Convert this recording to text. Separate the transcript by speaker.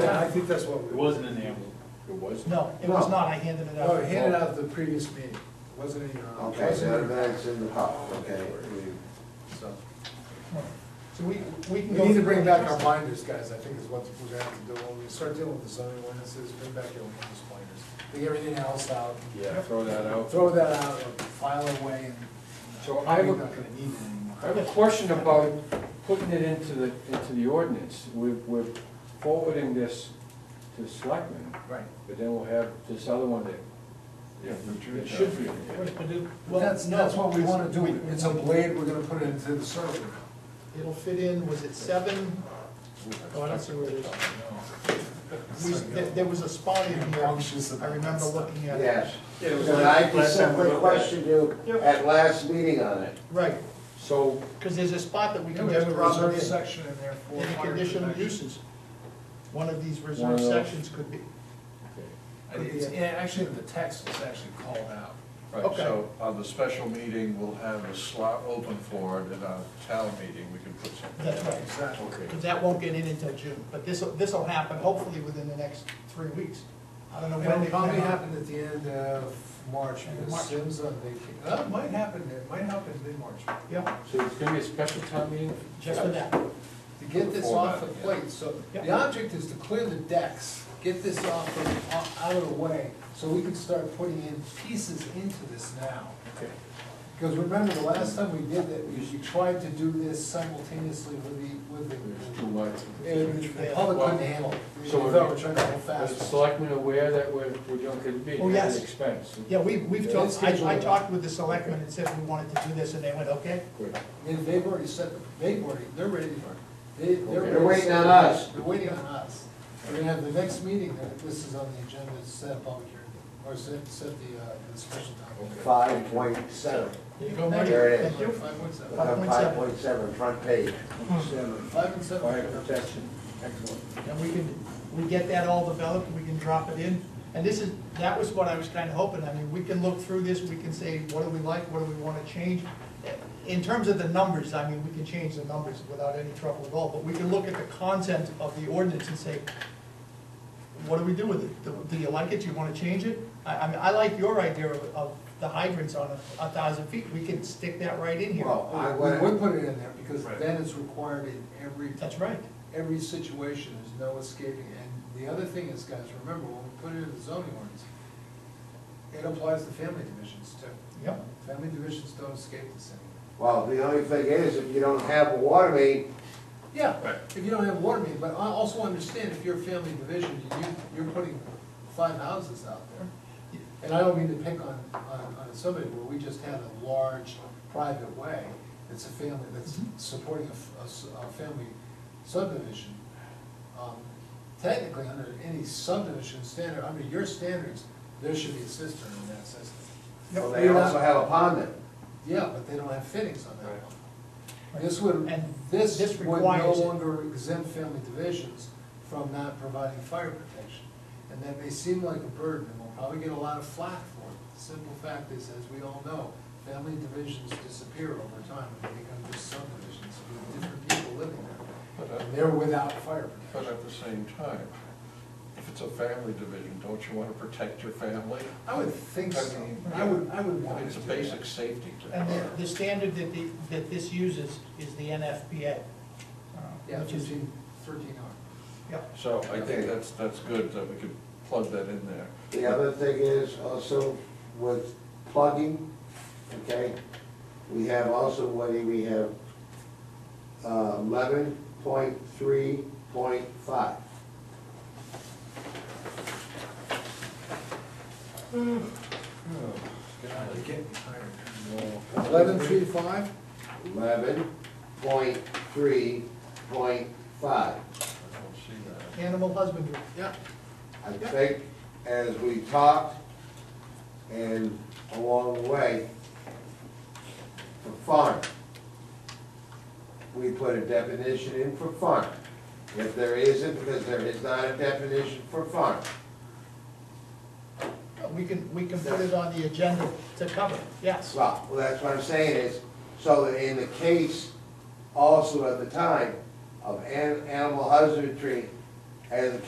Speaker 1: think that's what
Speaker 2: It
Speaker 1: we.
Speaker 2: wasn't in the envelope.
Speaker 3: It was?
Speaker 4: No, it was not, I handed it out.
Speaker 1: No, we handed out at the previous meeting, It wasn't in your.
Speaker 5: Okay, that bag's in the pot, okay. we-
Speaker 1: So
Speaker 4: So we, we
Speaker 1: we
Speaker 4: can go.
Speaker 1: need to bring back our binders, guys, I think is what we're gonna have to do, when we start dealing with the zoning ordinances, bring back your ordinance binders. Take everything else out,
Speaker 3: Yeah, throw that out.
Speaker 1: throw that out, and file it away, and.
Speaker 6: So I
Speaker 1: We're
Speaker 6: would-
Speaker 1: not gonna need it anymore.
Speaker 6: I have a question about putting it into the, into the ordinance. We're, we're forwarding this to selectmen,
Speaker 1: Right.
Speaker 6: but then we'll have this other one that,
Speaker 3: Yeah, Richard.
Speaker 6: that should be in there.
Speaker 4: What to do- well,
Speaker 1: That's, that's what we
Speaker 4: no,
Speaker 1: wanna do,
Speaker 4: we- we-
Speaker 1: it's a blade, we're gonna put it into the server now.
Speaker 4: It'll fit in, was it seven? Oh, I don't see where it is. We- There there was a spot in here,
Speaker 1: Anxious about
Speaker 4: I remember
Speaker 1: that stuff.
Speaker 4: looking at it.
Speaker 5: Yes,
Speaker 2: Yeah, it was
Speaker 5: and
Speaker 2: like
Speaker 5: I
Speaker 2: last
Speaker 5: just
Speaker 2: time we looked
Speaker 5: simply
Speaker 2: at it.
Speaker 5: questioned you
Speaker 4: Yep.
Speaker 5: at last meeting on it.
Speaker 4: Right,
Speaker 6: So,
Speaker 4: because there's a spot that we
Speaker 1: We
Speaker 4: can
Speaker 1: can
Speaker 4: just
Speaker 1: have a
Speaker 4: drop
Speaker 1: reserve
Speaker 4: it in.
Speaker 1: section in there for.
Speaker 4: Any
Speaker 1: fire
Speaker 4: conditional
Speaker 1: protection.
Speaker 4: uses. One of these
Speaker 6: One of
Speaker 4: reserved
Speaker 6: those.
Speaker 4: sections could be,
Speaker 1: And it's, and actually, the text is actually called out.
Speaker 3: Right, so on the special meeting, we'll have a slot open for it, and on town meeting, we can put something.
Speaker 4: that's right,
Speaker 1: Exactly.
Speaker 4: because that won't get in until June. But this, this'll happen hopefully within the next three weeks. I don't know when
Speaker 1: It'll
Speaker 4: they
Speaker 1: probably
Speaker 4: plan on-
Speaker 1: happen at the end of March,
Speaker 4: End of
Speaker 1: because
Speaker 4: March.
Speaker 1: Sim's on vacation. Uh, it might happen, it might happen mid-March.
Speaker 4: Yeah,
Speaker 6: so it's gonna be a special town meeting?
Speaker 4: just for that.
Speaker 1: To get this
Speaker 3: Before
Speaker 1: off the
Speaker 3: that, yeah.
Speaker 1: plate, so the
Speaker 4: Yeah.
Speaker 1: object is to clear the decks, get this off, of- o- out of the way, so we can start putting in pieces into this now.
Speaker 6: Okay.
Speaker 1: Because remember, the last time we did that, we we tried to do this simultaneously with the, with
Speaker 6: There's
Speaker 1: the,
Speaker 6: too much.
Speaker 1: and the public couldn't handle it. We
Speaker 6: So we're-
Speaker 1: thought we're trying to hold
Speaker 6: Are the
Speaker 1: fast.
Speaker 6: selectmen aware that we're, we're doing, could it be
Speaker 4: Oh,
Speaker 6: at
Speaker 4: yes.
Speaker 6: an expense?
Speaker 4: Yeah, we, we've
Speaker 1: Yeah,
Speaker 4: talked,
Speaker 1: it's
Speaker 4: I, I
Speaker 1: scheduled.
Speaker 4: talked with the selectmen and said we wanted to do this, and they went, okay.
Speaker 6: Good.
Speaker 1: And they've already set, they've already, they're ready for, they, they're.
Speaker 6: Okay.
Speaker 1: ready
Speaker 5: They're
Speaker 1: to
Speaker 5: waiting
Speaker 1: set-
Speaker 5: on us.
Speaker 1: They're waiting on us. We're gonna have the next meeting, that this is on the agenda, is set a public hearing, or set, set the, uh, the special time.
Speaker 5: Five point seven,
Speaker 4: There you go, Mike.
Speaker 5: There it is.
Speaker 4: Thank you.
Speaker 1: Five point seven.
Speaker 5: five point seven, front page.
Speaker 1: Five and seven.
Speaker 6: Fire protection, excellent.
Speaker 4: And we can, we get that all developed, we can drop it in. And this is, that was what I was kind of hoping, I mean, we can look through this, we can say, what do we like, what do we want to change? In terms of the numbers, I mean, we can change the numbers without any trouble at all, but we can look at the content of the ordinance and say, what do we do with it? Do- Do you like it, do you want to change it? I, I mean, I like your idea of, of the hydrants on a, a thousand feet, we can stick that right in here.
Speaker 5: Well, I
Speaker 1: We would
Speaker 5: would,
Speaker 1: put it in there, because then it's required in every,
Speaker 4: That's right,
Speaker 1: every situation, there's no escaping. And the other thing is, guys, remember, when we put it in the zoning ordinance, it applies to family divisions too.
Speaker 4: yep.
Speaker 1: Family divisions don't escape this anymore.
Speaker 5: well, the only thing is, if you don't have a water main,
Speaker 1: Yeah, if you don't have water main, but I also understand if you're a family division, you, you're putting five houses out there. And I don't mean to pick on, on, on somebody where we just had a large private way, it's a family that's supporting a f- a, s- a family subdivision. Um, Technically, under any subdivision standard, under your standards, there should be a cistern in that system.
Speaker 5: well, they also have a pond in.
Speaker 1: Yeah, but they don't have fittings on that one. This would,
Speaker 4: And
Speaker 1: this
Speaker 4: this
Speaker 1: would no
Speaker 4: requires it.
Speaker 1: longer exempt family divisions from not providing fire protection. And that may seem like a burden, and we'll probably get a lot of flack for it. The simple fact is, as we all know, family divisions disappear over time and they become just subdivisions with different people living there. And they're without fire
Speaker 3: But
Speaker 1: protection.
Speaker 3: at the same time, if it's a family division, don't you want to protect your family?
Speaker 1: I would think so. I would, I would want to
Speaker 3: It's a
Speaker 1: do that.
Speaker 3: basic safety. to-
Speaker 4: And the, the standard that the, that this uses is the NFPA. uh,
Speaker 1: Yeah,
Speaker 4: which is-
Speaker 1: thirteen, thirteen R.
Speaker 4: Yeah,
Speaker 3: So I
Speaker 5: Okay.
Speaker 3: think that's, that's good, that we could plug that in there.
Speaker 5: The other thing is also with plugging, okay, we have also, what do we have? uh, Eleven point three point five.
Speaker 1: God, it's getting tired. Eleven three five?
Speaker 5: Eleven point three point five.
Speaker 3: I don't see that.
Speaker 4: animal husbandry.
Speaker 1: Yeah.
Speaker 5: I think as we talked and along the way, for fun, we put a definition in for fun. If there isn't, because there is not a definition for fun.
Speaker 4: Uh, We can, we can put it on the agenda to cover, yes.
Speaker 5: Well, well, that's what I'm saying is, so that in the case also at the time of an- animal husbandry as a